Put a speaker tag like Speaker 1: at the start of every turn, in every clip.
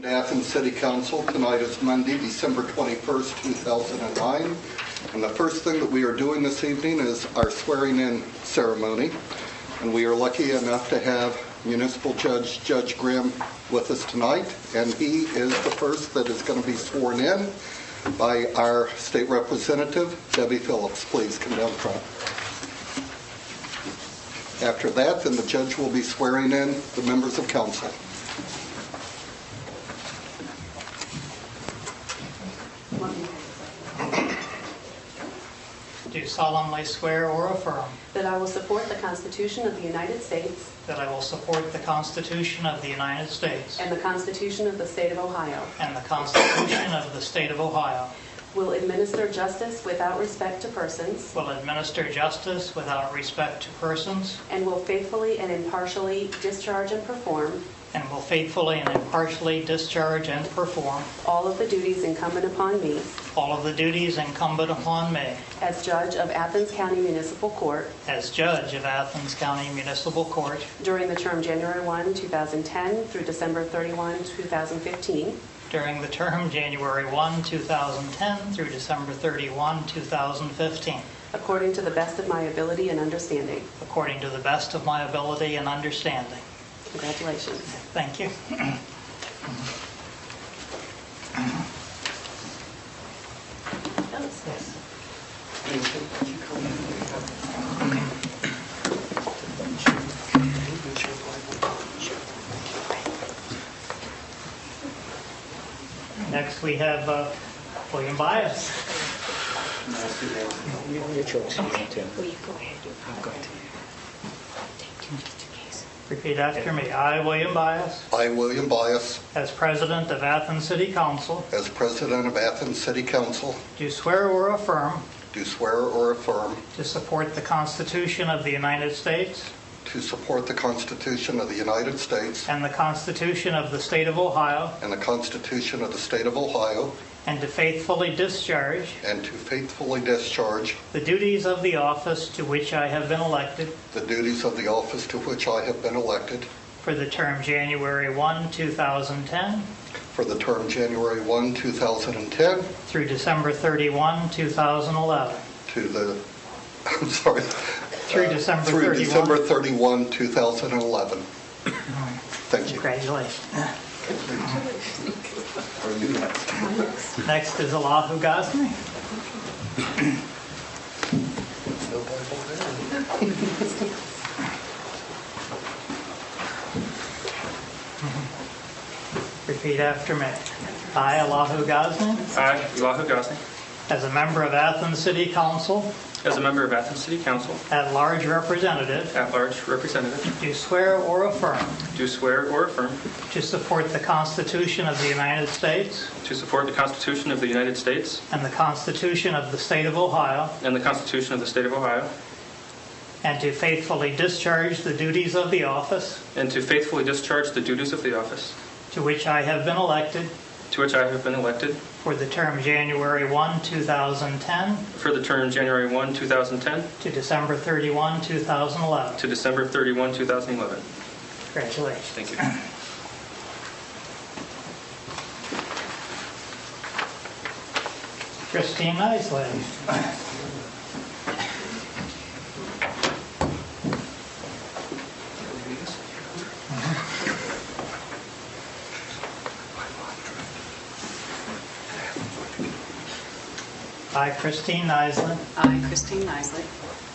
Speaker 1: The Athens City Council, tonight is Monday, December 21st, 2009. And the first thing that we are doing this evening is our swearing-in ceremony. And we are lucky enough to have Municipal Judge Judge Grimm with us tonight. And he is the first that is going to be sworn in by our state representative, Debbie Phillips. Please come down front. After that, then the judge will be swearing in the members of council.
Speaker 2: Do solemnly swear or affirm
Speaker 3: That I will support the Constitution of the United States
Speaker 2: that I will support the Constitution of the United States
Speaker 3: and the Constitution of the State of Ohio.
Speaker 2: and the Constitution of the State of Ohio,
Speaker 3: Will administer justice without respect to persons.
Speaker 2: will administer justice without respect to persons,
Speaker 3: And will faithfully and impartially discharge and perform
Speaker 2: and will faithfully and impartially discharge and perform
Speaker 3: all of the duties incumbent upon me
Speaker 2: all of the duties incumbent upon me
Speaker 3: as judge of Athens County Municipal Court
Speaker 2: as judge of Athens County Municipal Court
Speaker 3: during the term January 1, 2010 through December 31, 2015,
Speaker 2: during the term January 1, 2010 through December 31, 2015,
Speaker 3: according to the best of my ability and understanding.
Speaker 2: according to the best of my ability and understanding.
Speaker 3: Congratulations.
Speaker 2: Thank you. Yes. Next, we have uh, William Bias.
Speaker 4: Will you go ahead? I'm going to. Thank you, Mr. Case.
Speaker 2: Repeat after me. I, William Bias,
Speaker 1: I, William Bias,
Speaker 2: as president of Athens City Council,
Speaker 1: as president of Athens City Council,
Speaker 2: do swear or affirm
Speaker 1: do swear or affirm
Speaker 2: to support the Constitution of the United States
Speaker 1: to support the Constitution of the United States
Speaker 2: and the Constitution of the State of Ohio,
Speaker 1: and the Constitution of the State of Ohio,
Speaker 2: and to faithfully discharge
Speaker 1: and to faithfully discharge
Speaker 2: the duties of the office to which I have been elected
Speaker 1: the duties of the office to which I have been elected
Speaker 2: for the term January 1, 2010
Speaker 1: for the term January 1, 2010
Speaker 2: through December 31, 2011.
Speaker 1: to the, I'm sorry.
Speaker 2: Through
Speaker 1: uh,
Speaker 2: December
Speaker 1: Through
Speaker 2: 31.
Speaker 1: December 31, 2011. Thank you.
Speaker 2: Congratulations. Next is Allahu Ghazni. Repeat after me. I, Allahu Ghazni,
Speaker 5: I, Elihu Gosney,
Speaker 2: as a member of Athens City Council,
Speaker 5: as a member of Athens City Council,
Speaker 2: at-large representative,
Speaker 5: at-large representative,
Speaker 2: do swear or affirm
Speaker 5: do swear or affirm
Speaker 2: to support the Constitution of the United States
Speaker 5: to support the Constitution of the United States
Speaker 2: and the Constitution of the State of Ohio,
Speaker 5: and the Constitution of the State of Ohio,
Speaker 2: and to faithfully discharge the duties of the office
Speaker 5: and to faithfully discharge the duties of the office
Speaker 2: to which I have been elected
Speaker 5: to which I have been elected
Speaker 2: for the term January 1, 2010
Speaker 5: for the term January 1, 2010
Speaker 2: to December 31, 2011.
Speaker 5: to December 31, 2011.
Speaker 2: Congratulations.
Speaker 5: Thank you.
Speaker 2: Christine Isley. I, Christine Isley,
Speaker 6: I, Christine Nisley,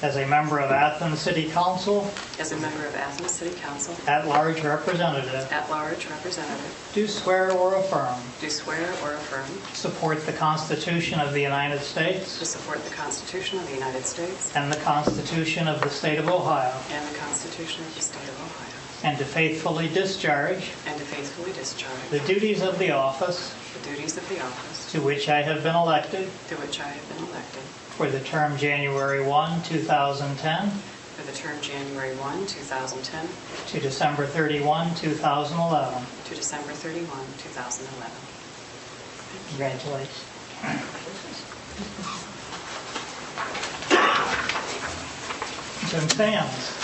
Speaker 2: as a member of Athens City Council,
Speaker 6: as a member of Athens City Council,
Speaker 2: at-large representative,
Speaker 6: at-large representative,
Speaker 2: do swear or affirm
Speaker 6: do swear or affirm
Speaker 2: to support the Constitution of the United States
Speaker 6: to support the Constitution of the United States
Speaker 2: and the Constitution of the State of Ohio,
Speaker 6: and the Constitution of the State of Ohio,
Speaker 2: and to faithfully discharge
Speaker 6: and to faithfully discharge
Speaker 2: the duties of the office
Speaker 6: the duties of the office
Speaker 2: to which I have been elected
Speaker 6: to which I have been elected
Speaker 2: for the term January 1, 2010
Speaker 6: for the term January 1, 2010
Speaker 2: to December 31, 2011.
Speaker 6: to December 31, 2011.
Speaker 2: Congratulations. Jim Sands.